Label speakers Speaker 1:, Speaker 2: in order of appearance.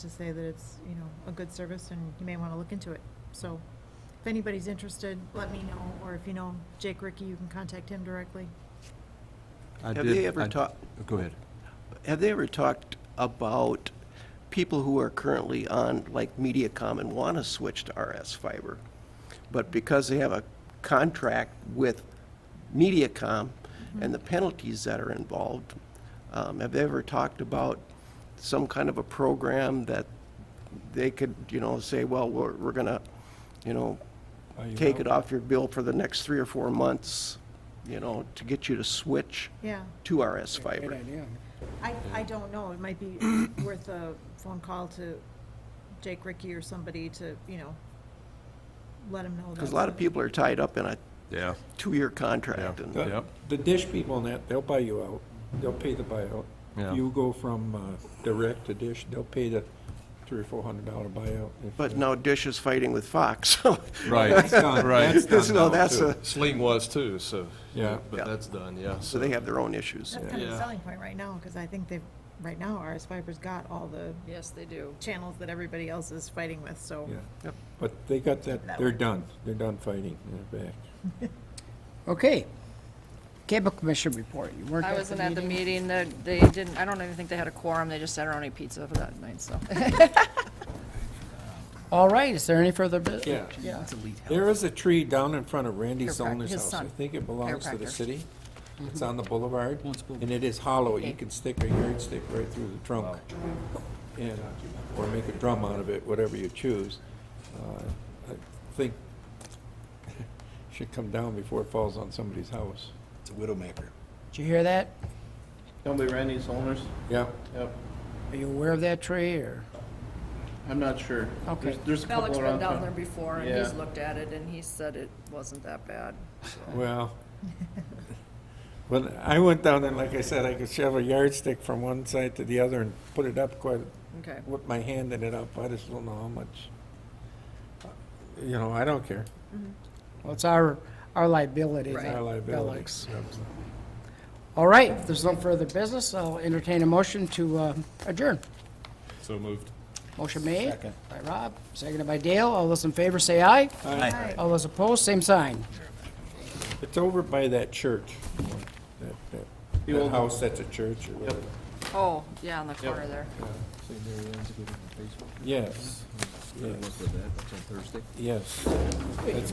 Speaker 1: to say that it's, you know, a good service and you may want to look into it. So if anybody's interested, let me know, or if you know Jake Ricky, you can contact him directly.
Speaker 2: I
Speaker 3: Have
Speaker 2: did-
Speaker 3: they ever
Speaker 2: I-
Speaker 3: talked-
Speaker 2: Go ahead.
Speaker 3: Have they ever talked about people who are currently on, like MediaCom and want to switch to RS fiber, but because they have a contract with MediaCom and the penalties that are involved, um, have they ever talked about some kind of a program that they could, you know, say, well, we're, we're gonna, you know,
Speaker 4: Are you
Speaker 3: take
Speaker 4: out?
Speaker 3: it off your bill for the next three or four months, you know, to get you to switch
Speaker 1: Yeah.
Speaker 3: to RS
Speaker 4: Great
Speaker 3: fiber?
Speaker 4: idea.
Speaker 1: I, I don't know. It might be worth a phone call to Jake Ricky or somebody to, you know, let him know.
Speaker 3: Because
Speaker 1: that's
Speaker 3: a lot of people are tied up in a
Speaker 2: Yeah.
Speaker 3: two-year contract,
Speaker 2: Yeah.
Speaker 3: and
Speaker 4: The
Speaker 2: Yep.
Speaker 4: the dish people and that, they'll buy you out. They'll pay the buyout.
Speaker 2: Yeah.
Speaker 4: You go from uh, direct to dish, they'll pay the three or four hundred dollar buyout. if,
Speaker 3: but
Speaker 4: uh,
Speaker 3: now Dish is fighting with Fox, so,
Speaker 2: Right,
Speaker 4: That's done,
Speaker 2: right.
Speaker 4: that's done
Speaker 3: no,
Speaker 4: now,
Speaker 3: that's
Speaker 4: too.
Speaker 3: a,
Speaker 5: Sling was too, so.
Speaker 4: Yeah.
Speaker 3: Yeah.
Speaker 5: But that's done, yeah.
Speaker 3: so they have their own issues.
Speaker 1: That's kind of a
Speaker 5: Yeah.
Speaker 1: selling point right now, because I think they've, right now, RS Fiber's got all the
Speaker 6: Yes, they do.
Speaker 1: channels that everybody else is fighting with, so.
Speaker 4: Yeah.
Speaker 3: Yep.
Speaker 4: But they got
Speaker 1: That
Speaker 4: that, they're
Speaker 1: way.
Speaker 4: done. They're done fighting. They're back.
Speaker 7: Okay. Cable Commission report. You weren't
Speaker 6: I
Speaker 7: at the
Speaker 6: wasn't at the
Speaker 7: meeting?
Speaker 6: meeting, that they didn't, I don't even think they had a quorum, they just had our own pizza for that night, so.
Speaker 7: All right, is there any further business?
Speaker 4: Yeah. There is a tree down in front of Randy
Speaker 6: Chiropractor,
Speaker 4: Zollner's
Speaker 6: his
Speaker 4: house. I
Speaker 6: son.
Speaker 4: think it belongs to the
Speaker 6: Chiropractor. Mm-hmm.
Speaker 4: city. It's on the boulevard, and it is hollow. You can stick a yardstick right through the trunk. And, or make a drum out of it, whatever you choose. Uh, I think should come down before it falls on somebody's house.
Speaker 8: It's a widowmaker.
Speaker 7: Did you hear that?
Speaker 9: Don't be Randy's owners?
Speaker 4: Yeah,
Speaker 9: Yep.
Speaker 7: Are you aware of that tree or?
Speaker 9: I'm not sure.
Speaker 7: Okay.
Speaker 9: There's- There's a
Speaker 6: Alex
Speaker 9: couple
Speaker 6: been
Speaker 9: around
Speaker 6: down
Speaker 9: town.
Speaker 6: there before, and he's
Speaker 9: Yeah.
Speaker 6: looked at it, and he said it wasn't that bad.
Speaker 4: well, when I went down there, like I said, I could shove a yardstick from one side to the other and put it up quite,
Speaker 6: Okay,
Speaker 4: with my hand in it up, I just don't know how much, you know, I don't care.
Speaker 7: Well, it's our, our liability.
Speaker 6: Right.
Speaker 7: not
Speaker 4: Our liability.
Speaker 7: Alex. All right, if there's no further business, I'll entertain a motion to uh, adjourn.
Speaker 5: So moved.
Speaker 7: Motion made by Rob, seconded by Dale. All those in favor say aye.
Speaker 1: Aye.
Speaker 7: All those opposed, same sign.
Speaker 4: It's over by that church, that, that,
Speaker 9: The
Speaker 4: that
Speaker 9: old-
Speaker 4: house that's a church or whatever.
Speaker 6: oh, yeah, on the corner there.
Speaker 4: Yes, yes,
Speaker 8: Look at that, it's on Thursday.
Speaker 4: yes. It's